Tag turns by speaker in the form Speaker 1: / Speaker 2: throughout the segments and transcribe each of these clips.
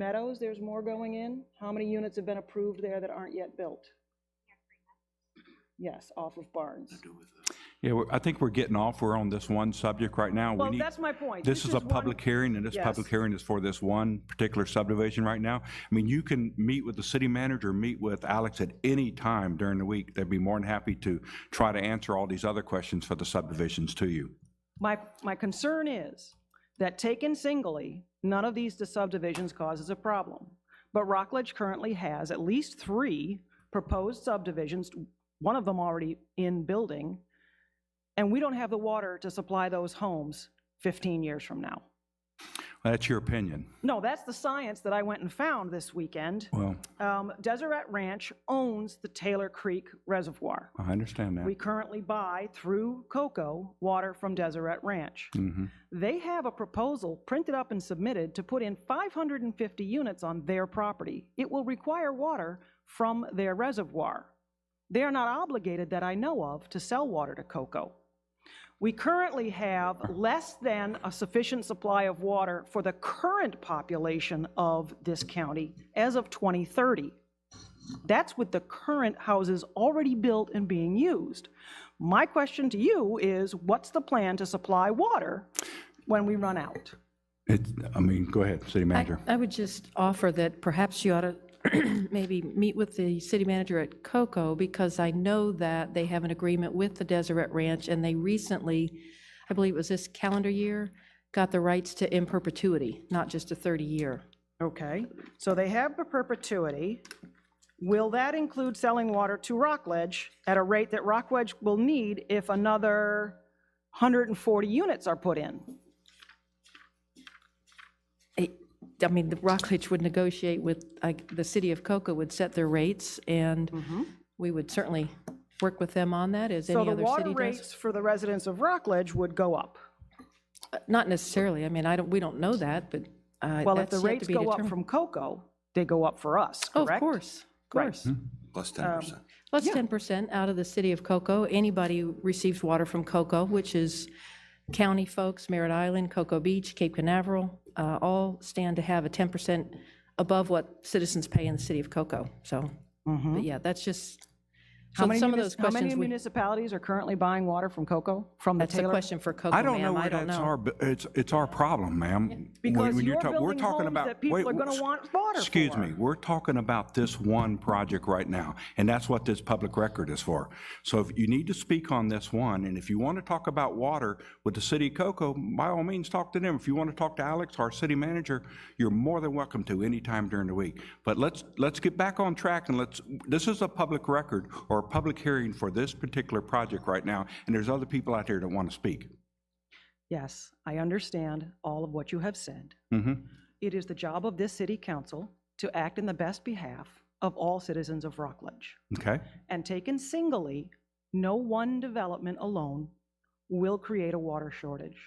Speaker 1: Meadows, there's more going in. How many units have been approved there that aren't yet built? Yes, off of Barnes.
Speaker 2: Yeah, we're- I think we're getting off, we're on this one subject right now. We
Speaker 1: Well,
Speaker 2: need,
Speaker 1: that's my point.
Speaker 2: this is a
Speaker 1: one-
Speaker 2: public hearing, and this public
Speaker 1: Yes.
Speaker 2: hearing is for this one particular subdivision right now. I mean, you can meet with the city manager, meet with Alex at any time during the week. They'd be more than happy to try to answer all these other questions for the subdivisions to you.
Speaker 1: My, my concern is that taken singly, none of these subdivisions causes a problem. But Rockledge currently has at least three proposed subdivisions, one of them already in building, and we don't have the water to supply those homes 15 years from now.
Speaker 2: That's your opinion.
Speaker 1: No, that's the science that I went and found this weekend.
Speaker 2: Well,
Speaker 1: Um, Deseret Ranch owns the Taylor Creek Reservoir.
Speaker 2: I understand
Speaker 1: We
Speaker 2: that.
Speaker 1: currently buy through COCO water from Deseret Ranch.
Speaker 2: Mhm.
Speaker 1: They have a proposal printed up and submitted to put in 550 units on their property. It will require water from their reservoir. They are not obligated, that I know of, to sell water to COCO. We currently have less than a sufficient supply of water for the current population of this county as of 2030. That's with the current houses already built and being used. My question to you is, what's the plan to supply water when we run out?
Speaker 2: It, I mean, go ahead, city manager.
Speaker 3: I would just offer that perhaps you ought to maybe meet with the city manager at COCO, because I know that they have an agreement with the Deseret Ranch, and they recently, I believe it was this calendar year, got the rights to in perpetuity, not just a 30-year.
Speaker 1: Okay, so they have the perpetuity. Will that include selling water to Rockledge at a rate that Rockledge will need if another 140 units are put in?
Speaker 3: I I mean, the Rockledge would negotiate with, like, the city of COCO would set their rates, and we would certainly work with them on that, as
Speaker 1: Mm-hmm. So
Speaker 3: any
Speaker 1: the
Speaker 3: other
Speaker 1: water
Speaker 3: city does.
Speaker 1: rates for the residents of Rockledge would go up.
Speaker 3: Not necessarily, I mean, I don't, we don't know that, but uh,
Speaker 1: Well, if
Speaker 3: that's
Speaker 1: the
Speaker 3: yet to
Speaker 1: rates
Speaker 3: be
Speaker 1: go up
Speaker 3: determined.
Speaker 1: from Cocoa, they go up for us,
Speaker 3: Oh,
Speaker 1: correct?
Speaker 3: Of course, of
Speaker 1: Right.
Speaker 3: course.
Speaker 4: Plus ten percent.
Speaker 3: Plus 10% out of the city of Cocoa. Anybody who receives water from Cocoa, which is county folks, Merritt Island, Cocoa Beach, Cape Canaveral, uh, all stand to have a 10% above what citizens pay in the city of Cocoa. So, but yeah, that's just,
Speaker 1: Mm-hmm. How
Speaker 3: so
Speaker 1: many
Speaker 3: Um, some of
Speaker 1: munis-
Speaker 3: those
Speaker 1: How many
Speaker 3: questions, we-
Speaker 1: municipalities are currently buying water from Cocoa, from the
Speaker 3: that's a
Speaker 1: Taylor?
Speaker 3: question for Cocoa,
Speaker 2: I don't know
Speaker 3: ma'am. I
Speaker 2: where
Speaker 3: don't
Speaker 2: that's
Speaker 3: know.
Speaker 2: our, bu- it's, it's our problem, ma'am. When-
Speaker 1: Because
Speaker 2: when
Speaker 1: you're
Speaker 2: talk- we're
Speaker 1: building
Speaker 2: talking
Speaker 1: homes
Speaker 2: about-
Speaker 1: that people
Speaker 2: wait,
Speaker 1: are gonna
Speaker 2: s-
Speaker 1: want water
Speaker 2: Excuse
Speaker 1: for.
Speaker 2: me, we're talking about this one project right now, and that's what this public record is for. So if you need to speak on this one, and if you want to talk about water with the city of Cocoa, by all means, talk to them. If you want to talk to Alex, our city manager, you're more than welcome to anytime during the week. But let's, let's get back on track and let's, this is a public record or a public hearing for this particular project right now, and there's other people out there that want to speak.
Speaker 1: Yes, I understand all of what you have said.
Speaker 2: Mm-hmm.
Speaker 1: It is the job of this city council to act in the best behalf of all citizens of Rockledge.
Speaker 2: Okay,
Speaker 1: And taken singly, no one development alone will create a water shortage.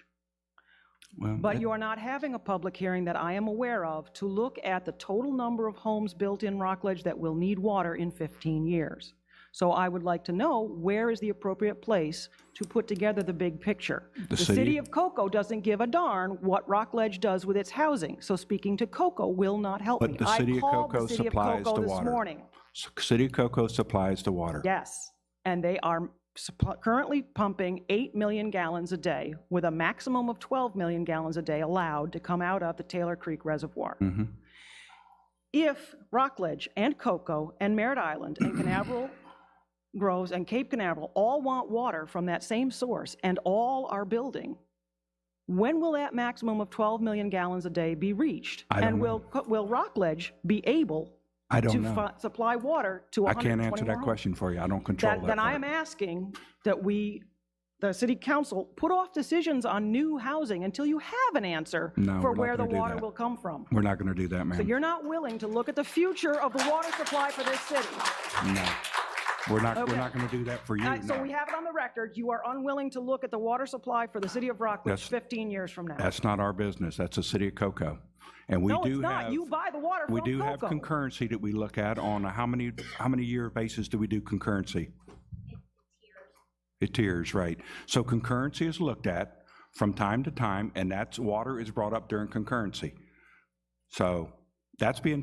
Speaker 2: well.
Speaker 1: But you are not having a public hearing that I am aware of to look at the total number of homes built in Rockledge that will need water in 15 years. So I would like to know where is the appropriate place to put together the big picture. The
Speaker 2: city-
Speaker 1: city of Cocoa doesn't give a darn what Rockledge does with its housing, so speaking to Cocoa will not help
Speaker 2: But
Speaker 1: me.
Speaker 2: the
Speaker 1: I
Speaker 2: city of
Speaker 1: called
Speaker 2: Cocoa
Speaker 1: the city of
Speaker 2: supplies
Speaker 1: Cocoa
Speaker 2: the
Speaker 1: this
Speaker 2: water.
Speaker 1: morning.
Speaker 2: S- City of Cocoa supplies the water.
Speaker 1: Yes, and they are supp- currently pumping 8 million gallons a day, with a maximum of 12 million gallons a day allowed to come out of the Taylor Creek Reservoir.
Speaker 2: Mhm.
Speaker 1: If Rockledge and Cocoa and Merritt Island and Canaveral Groves and Cape Canaveral all want water from that same source and all are building, when will that maximum of 12 million gallons a day be reached?
Speaker 2: I don't
Speaker 1: And
Speaker 2: know.
Speaker 1: will, Co- will Rockledge be able
Speaker 2: I
Speaker 1: to
Speaker 2: don't know.
Speaker 1: fi- supply water to
Speaker 2: I
Speaker 1: 120
Speaker 2: can't answer
Speaker 1: more
Speaker 2: that
Speaker 1: homes?
Speaker 2: question for you. I don't control that.
Speaker 1: that, then I
Speaker 2: part.
Speaker 1: am asking that we, the city council, put off decisions on new housing until you have an answer
Speaker 2: No, we're
Speaker 1: for
Speaker 2: not
Speaker 1: where the
Speaker 2: gonna do
Speaker 1: water
Speaker 2: that. Mm.
Speaker 1: will come from.
Speaker 2: We're not going to do that,
Speaker 1: But
Speaker 2: ma'am.
Speaker 1: you're not willing to look at the future of the water supply for this city.
Speaker 2: Mm, No. We're not, we're
Speaker 1: Okay.
Speaker 2: not going to do that for you,
Speaker 1: All right, Uh, So we
Speaker 2: no.
Speaker 1: have it on the record, you are unwilling to look at the water supply for the city of Rockledge
Speaker 2: That's-
Speaker 1: 15 years from now.
Speaker 2: That's not our business. That's the city of Cocoa. And we
Speaker 1: No, it's
Speaker 2: do
Speaker 1: not,
Speaker 2: have,
Speaker 1: you buy the water from
Speaker 2: we do have
Speaker 1: Cocoa.
Speaker 2: concurrency that we look at on a how many, how many year basis do we do concurrency? It tiers, right. So concurrency is looked at from time to time, and that's, water is brought up during concurrency. So That's being